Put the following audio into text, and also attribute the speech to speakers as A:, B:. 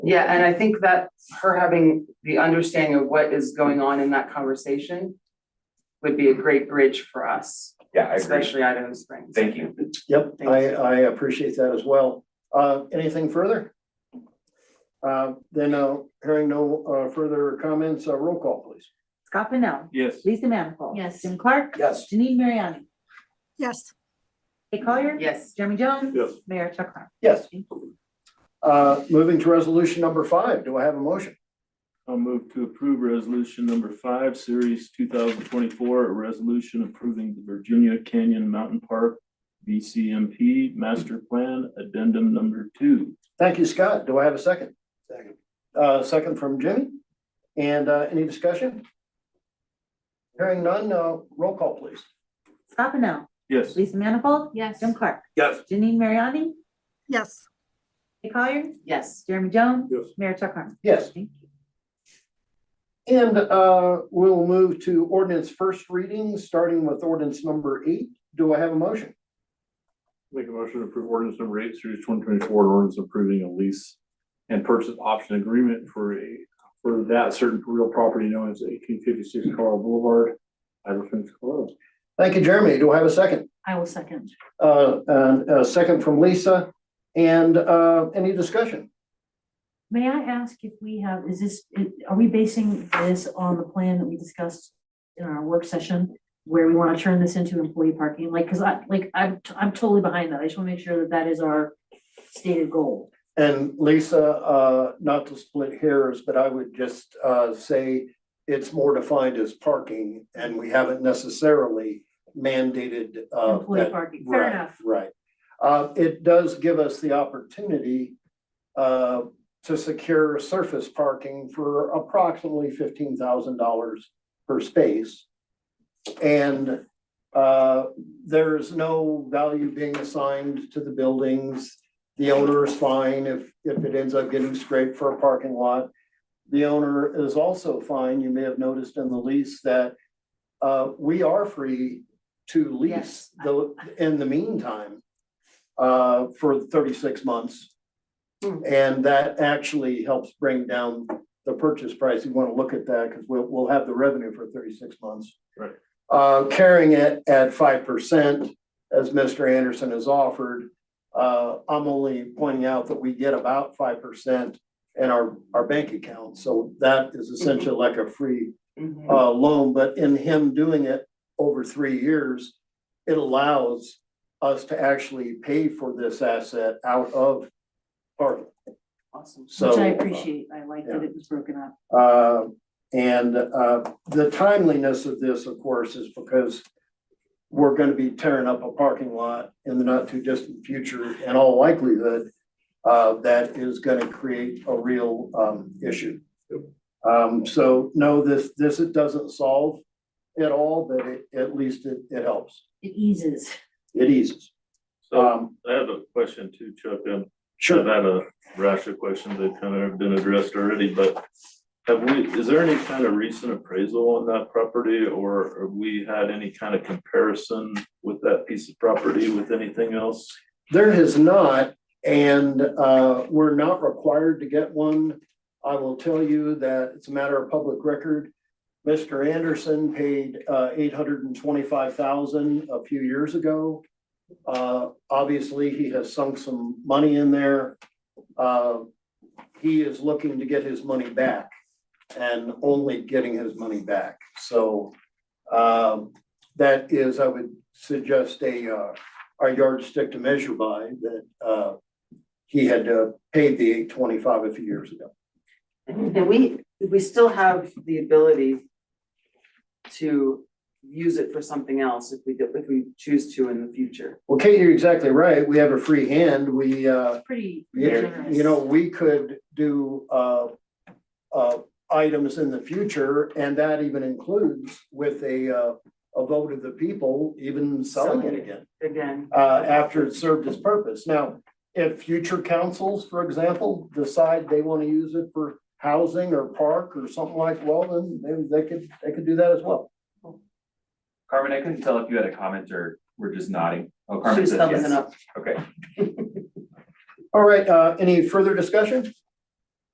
A: Yeah, and I think that her having the understanding of what is going on in that conversation would be a great bridge for us,
B: Yeah, I agree.
A: especially Idaho Springs.
B: Thank you.
C: Yep,
A: Thank
C: I,
A: you.
C: I appreciate that as well. Uh, anything further? Uh, then, uh, hearing no, uh, further comments, uh, roll call, please.
D: Scott Pennell.
B: Yes.
D: Lisa Manifold.
E: Yes.
D: Jim Clark.
C: Yes.
D: Janine Mariani.
E: Yes.
D: Kate Collier.
A: Yes,
D: Jeremy Jones.
C: Yes.
D: Mayor Chuck Harmon.
C: Yes. Uh, moving to resolution number five, do I have a motion?
F: I'll move to approve resolution number five, series two thousand twenty-four, a resolution approving the Virginia Canyon Mountain Park VCMP Master Plan Addendum Number Two.
C: Thank you, Scott. Do I have a second? Second. Uh, second from Jimmy. And, uh, any discussion? Hearing none, uh, roll call, please.
D: Scott Pennell.
F: Yes.
D: Lisa Manifold.
E: Yes.
D: Jim Clark.
F: Yes.
D: Janine Mariani.
E: Yes.
D: Kate Collier.
A: yes,
D: Jeremy Jones.
F: Yes.
D: Mayor Chuck Harmon.
C: Yes.
D: Thank you.
C: And uh, we'll move to ordinance first reading, starting with ordinance number eight. Do I have a motion?
F: Make a motion to approve ordinance number eight, series twenty twenty-four, ordinance approving a lease and purchase option agreement for a, for that certain real property known as eighteen fifty-six Carl Boulevard, Idaho Springs, Colorado.
C: Thank you, Jeremy. Do I have a second?
E: I will second.
C: Uh, and a second from Lisa. And uh, any discussion?
E: May I ask if we have, is this, are we basing this on the plan that we discussed in our work session? Where we want to turn this into employee parking, like, cause I, like, I'm, I'm totally behind that. I just want to make sure that that is our stated goal.
C: And Lisa, uh, not to split hairs, but I would just uh, say it's more defined as parking and we haven't necessarily mandated uh,
E: Employee
C: that
E: parking, fair
C: Right,
E: enough.
C: right. Uh, it does give us the opportunity uh, to secure surface parking for approximately fifteen thousand dollars per space. And uh, there's no value being assigned to the buildings. The owner is fine if, if it ends up getting scraped for a parking lot. The owner is also fine. You may have noticed in the lease that uh, we are free to lease
A: Yes.
C: the, in the meantime uh, for thirty-six months.
A: Hmm.
C: And that actually helps bring down the purchase price. You want to look at that because we'll, we'll have the revenue for thirty-six months.
F: Right.
C: Uh, carrying it at five percent, as Mr. Anderson has offered. Uh, I'm only pointing out that we get about five percent in our, our bank account. So that is essentially like a free
A: Mhm.
C: uh, loan, but in him doing it over three years, it allows us to actually pay for this asset out of park.
A: awesome.
C: So. uh,
E: Which I appreciate. I like that
C: yeah.
E: it was broken up.
C: Uh, and, uh, the timeliness of this, of course, is because we're gonna be tearing up a parking lot in the not too distant future in all likelihood. Uh, that is gonna create a real, um, issue. Um, so no, this, this, it doesn't solve it all, but it, at least it, it helps.
E: It eases.
C: It eases.
G: So
C: Um,
G: I have a question too, Chuck. Um, I've
C: sure.
G: had a rash of questions that kind of have been addressed already, but have we, is there any kind of recent appraisal on that property or have we had any kind of comparison with that piece of property with anything else?
C: There has not, and uh, we're not required to get one. I will tell you that it's a matter of public record. Mr. Anderson paid uh, eight hundred and twenty-five thousand a few years ago. Uh, Obviously, he has sunk some money in there. Uh, He is looking to get his money back and only getting his money back. So um, that is, I would suggest a uh, our yardstick to measure by that uh he had uh paid the eight twenty-five a few years ago.
A: And we, we still have the ability to use it for something else if we, do- if we choose to in the future.
C: Well, Kate, you're exactly right. We have a free hand. We uh,
E: It's pretty
C: you
E: generous.
C: you know, we could do uh uh items in the future, and that even includes with a uh a vote of the people, even selling it
A: Selling it.
C: again.
A: Again,
C: uh, after it served its purpose. Now, if future councils, for example, decide they want to use it for housing or park or something like, well, then then they could, they could do that as well.
B: Carmen, I couldn't tell if you had a comment or were just nodding. Oh, Carmen
A: she's
B: says
A: thumbs
B: yes.
A: it up.
B: Okay.
C: All right, uh, any further discussion?